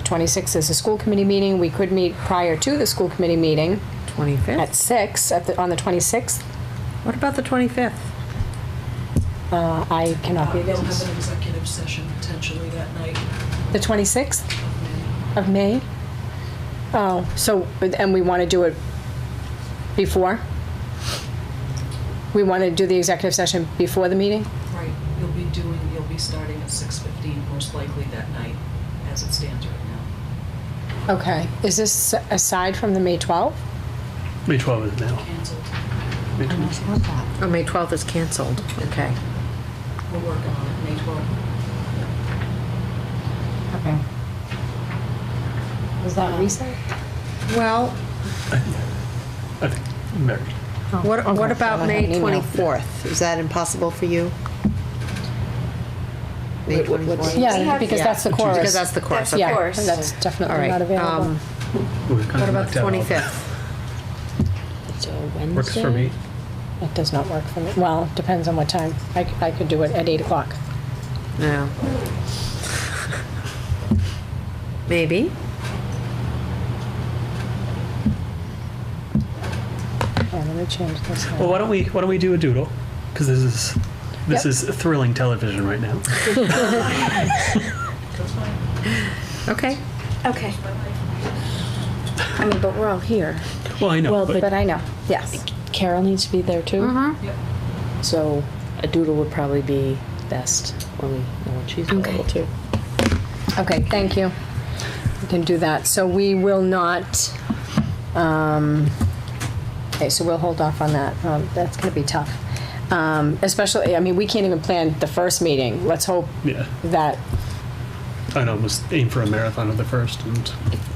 26th is a school committee meeting. We could meet prior to the school committee meeting at 25th? six at the, on the 26th. What about the 25th? Uh, I cannot be Uh, They'll have there. an executive session potentially that night. The 26th of May? Oh, so, and we want to do it before? We want to do the executive session before the meeting? Right, you'll be doing, you'll be starting at 6:15 most likely that night, as it stands right now. Okay. Is this aside from the May 12th? May 12 is now. Canceled. May 12. Oh, May 12th is canceled. Okay. We're working on it, May 12th. Okay. Was that recent? Well, I think, Mary. what, what okay. I about have an May email. 24th? Is that impossible for you? May 24th? Yeah, because that's the chorus. Because that's the course, okay. Yeah, course. that's All definitely right. not available. um, What about the 25th? It's a Wednesday? Works for me. It does not work for me. Well, depends on what time. I, c- I could do it at 8 o'clock. No. Maybe. Oh, let me change this. Well, why don't we, why don't we do a doodle? Because this is, this Yep. is thrilling television right now. That's fine. Okay. Okay. I mean, but we're all here. Well, I know, Well, but But I know, yes. Carol needs to be there too. Mm-hmm. Yep. So a doodle would probably be best when we know when she's available too. Okay, thank you. We can do that. So we will not, um, okay, so we'll hold off on that. Um, That's going to be tough. Um, Especially, I mean, we can't even plan the first meeting. Let's hope yeah, that, I know, was aim for a marathon of the first and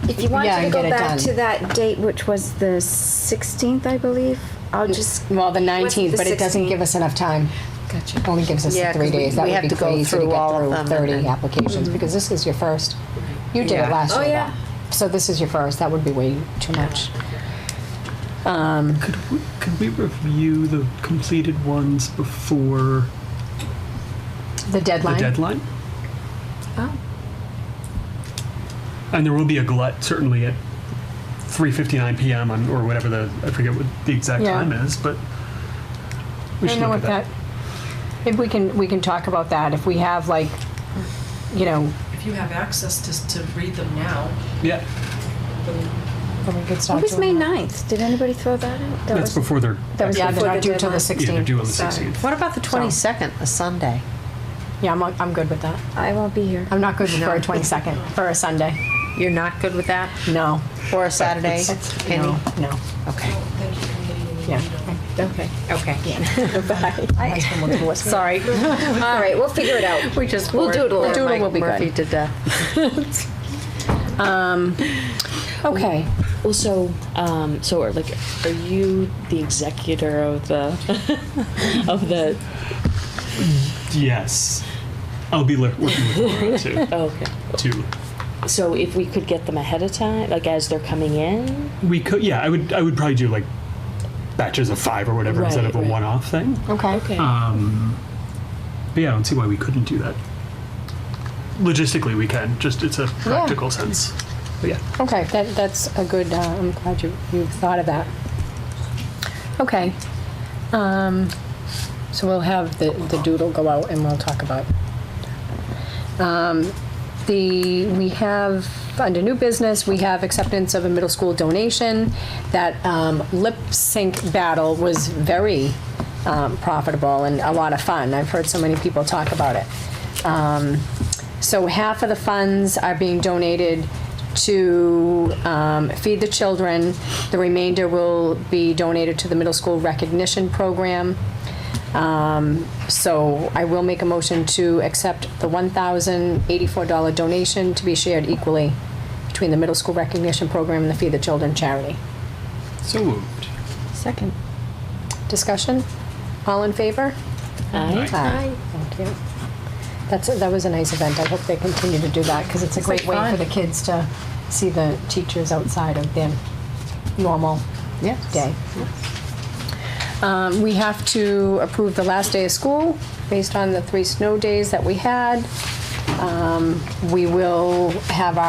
If you wanted Yeah, to and go get it back done. to that date, which was the 16th, I believe, I'll just, well, the the 19th, but it doesn't 16th? give us enough time. Gotcha. Only gives us the Yeah, three 'cause we- days. That we would have be to go crazy to through all of get them through and 30 then- applications, because this is your first. You did it Yeah. last Oh, year. yeah. So this is your first. That would be way too much. Could we, could we review the completed ones before The the deadline? deadline? Oh. And there will be a glut certainly at 3:59 p.m. on or whatever the I forget what the exact Yeah. time is, but we I should don't know look what at that. that, if we can, we can talk about that, if we have like, you know, If you have access to, to read them now, Yeah, then when we could start what was May doing that. 9th? Did anybody throw that out? That that's was before they're That was, yeah, they're Before not the due till the deadline. yeah they're 16th. due on the Sorry. 16th. What about the 22nd, a Sunday? Yeah, I'm, I'm good with that. I won't be here. I'm not good for a 22nd, for a Sunday. You're not good with that? No. Or a Saturday? Penny? No, no. Okay, thank you for meeting me. Yeah. okay, okay. Sorry. All right, we'll figure it out. We just. We'll bored doodle. poor Doodle Mike will be good. Murphy to death. Okay. Um, Well, so um, so are like, are you the executor of the of the? Yes, I'll be le- working with Laura to Oh, okay. to So if we could get them ahead of time, like as they're coming in. we could yeah I would I would probably do like batches of five or whatever instead Right, of a right. one-off thing. Okay. Um, but yeah, I don't see why we couldn't do that. Logistically, we can. Just it's a practical sense. But yeah, Okay, that, that's a good, uh, I'm glad you, you thought of that. Okay. Um, so we'll have the, the doodle go out and we'll talk about. Um, the, we have, under new business, we have acceptance of a middle school donation. That, um, lip sync battle was very, um, profitable and a lot of fun. I've heard so many people talk about it. Um, so half of the funds are being donated to um, feed the children. The remainder will be donated to the middle school recognition program. Um, So I will make a motion to accept the $1,084 donation to be shared equally between the middle school recognition program and the Feed the Children charity. so moved. Second. Discussion? All in favor? Aye. Aye. Thank you. That's, that was a nice event. I hope they continue to do that because it's a great way for the kids to see the teachers outside of their normal day. Um, We have to approve the last day of school based on the three snow days that we had. Um, We will have our